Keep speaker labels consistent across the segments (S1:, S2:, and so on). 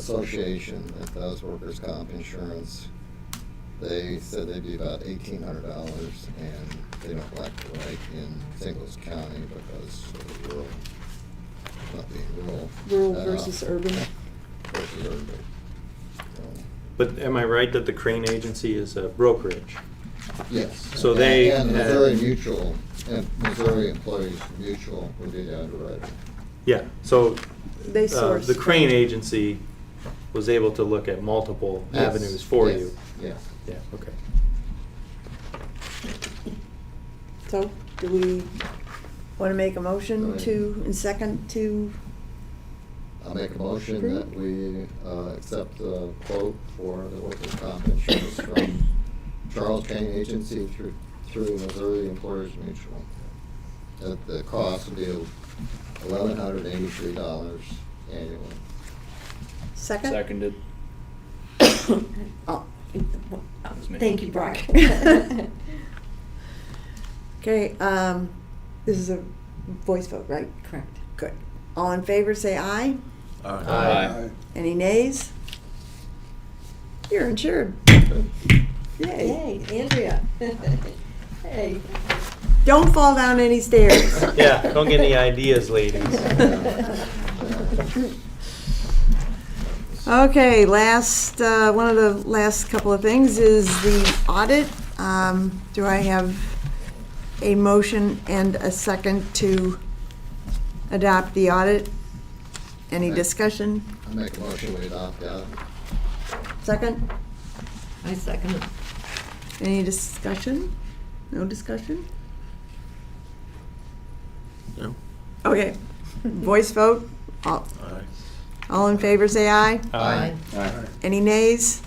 S1: association that does workers' comp insurance. They said they'd be about eighteen hundred dollars, and they don't like to write in Singles County because of the rural, not being rural.
S2: Rural
S1: uh,
S2: versus urban.
S1: Versus urban. So,
S3: But am I right that the crane agency is a brokerage?
S1: Yes.
S3: So they
S1: And
S3: had-
S1: Missouri Mutual, and Missouri Employees Mutual would be the underwriter.
S3: Yeah, so
S2: They
S3: uh,
S2: source.
S3: the crane agency was able to look at multiple
S1: Yes,
S3: avenues for
S1: yes,
S3: you.
S1: Yes.
S3: Yeah, okay.
S2: So, do we want to make a motion to, and second to,
S1: I'll make a motion that we uh, accept the quote for the workers' comp insurance from Charles Kane Agency through, through Missouri Employers Mutual. That the cost will be eleven hundred eighty-three dollars annually.
S2: second?
S4: Seconded.
S5: Oh,
S4: That was me.
S5: Thank you, Brock.
S2: Okay, um, this is a voice vote, right?
S5: Correct.
S2: Good. All in favor, say aye.
S3: Aye.
S2: Any nays? You're insured. Yay.
S5: Yay, Andrea. Hey.
S2: Don't fall down any stairs.
S3: Yeah, don't get any ideas, ladies.
S2: Okay, last, uh, one of the last couple of things is the audit. Um, Do I have a motion and a second to adopt the audit? Any discussion?
S1: I make a motion we adopt that.
S2: Second?
S5: I second it.
S2: Any discussion? No discussion?
S6: No.
S2: Okay, voice vote. All
S6: Aye.
S2: all in favor, say aye.
S3: Aye.
S2: Any nays?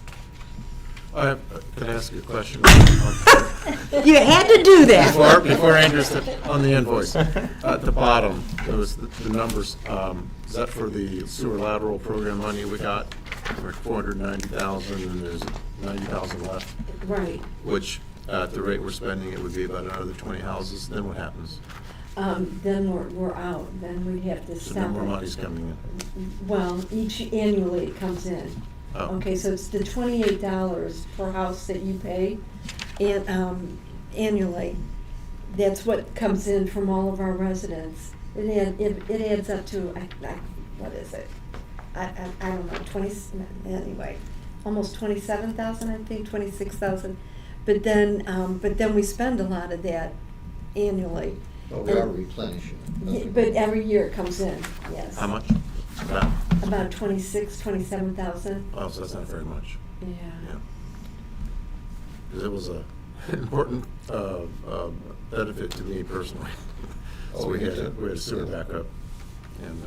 S6: I have, can Uh, I ask you a question? Before,
S2: You had to do that.
S6: before Andrew stepped on the invoice, uh, at the bottom, there was the, the numbers, um, is that for the sewer lateral program money we got? For four hundred ninety thousand, and there's ninety thousand left,
S5: Right.
S6: which, uh, at the rate we're spending, it would be about another twenty houses, then what happens?
S5: Um, then we're, we're out, then we have to
S6: So
S5: stop.
S6: no more
S5: it.
S6: money's coming in.
S5: Well, each annually it comes in.
S6: Oh.
S5: Okay, so it's the twenty-eight dollars per house that you pay and, um, annually. That's what comes in from all of our residents. It add, it, it adds up to, I, I, what is it? I, I, I don't know, twenty, anyway, almost twenty-seven thousand, I think, twenty-six thousand. But then, um, but then we spend a lot of that annually.
S1: But we are replenishing.
S5: Y- But every year it comes in, yes.
S6: How much? About,
S5: About twenty-six, twenty-seven thousand.
S6: oh, so that's not very much.
S5: Yeah.
S6: Yeah. 'Cause it was a important uh, uh, benefit to me personally. So we had, a- we had a sewer backup, and uh,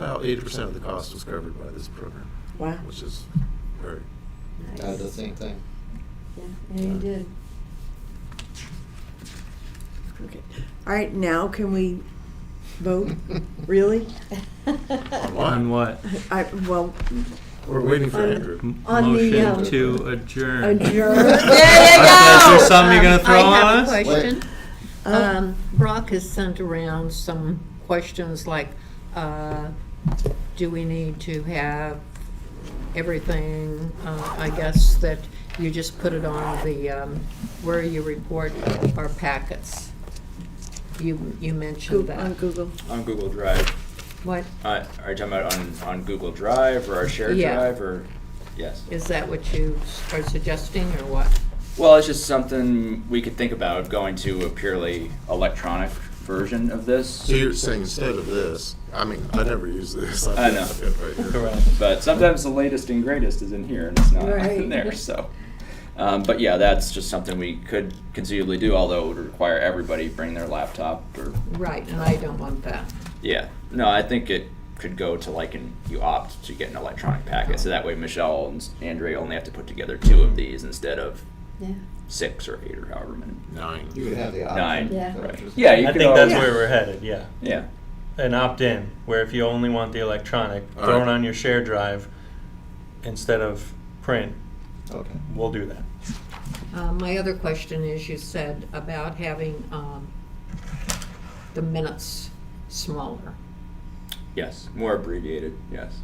S6: about eighty percent of the cost was covered by this program,
S2: Wow.
S6: which is very,
S5: Nice.
S1: I did the same thing.
S5: Yeah, yeah, you did.
S2: Okay. All right, now can we vote? Really?
S3: On what?
S2: I, well,
S6: we're waiting for
S5: Um,
S6: Andrew.
S3: M-
S5: On the,
S3: Motion
S5: um,
S3: to adjourn.
S5: Adjourn.
S2: there you
S3: Is there
S2: go!
S3: something you're gonna
S7: Um,
S3: throw on us?
S7: I have a question.
S2: Uh,
S7: Um, Brock has sent around some questions like, uh, do we need to have everything? Uh, I guess that you just put it on the, um, where you report our packets. You, you mentioned
S2: Goo- On
S7: that.
S2: Google.
S4: On Google Drive.
S7: What,
S4: Uh, are you talking about on, on Google Drive or our shared
S7: Yeah.
S4: drive or? Yes.
S7: is that what you are suggesting or what?
S4: Well, it's just something we could think about going to a purely electronic version of this.
S6: So you're saying instead of this, I mean, I never use this.
S4: I know.
S6: I've got it right here.
S4: But sometimes the latest and greatest is in here and it's not
S5: Right.
S4: in there. So, um, but yeah, that's just something we could conceivably do. Although it would require everybody bring their laptop or
S7: Right, and I don't want that.
S4: yeah. No, I think it could go to like an you opt to get an electronic packet. So that way Michelle and Andrea only have to put together two of these instead of
S5: Yeah.
S4: six or eight or however many.
S6: Nine.
S1: You would have the
S4: Nine.
S1: option.
S5: Yeah.
S1: So
S4: Right.
S1: just-
S4: Yeah, you
S3: I
S4: could
S3: think that's
S4: always-
S3: where we're headed, yeah.
S4: Yeah.
S3: An opt-in, where if you only want the electronic,
S6: All
S3: throw it
S6: right.
S3: on your share drive instead of print,
S1: Okay.
S3: we'll do that.
S7: Uh, My other question is, you said about having um, the minutes smaller.
S4: Yes. More abbreviated. Yes.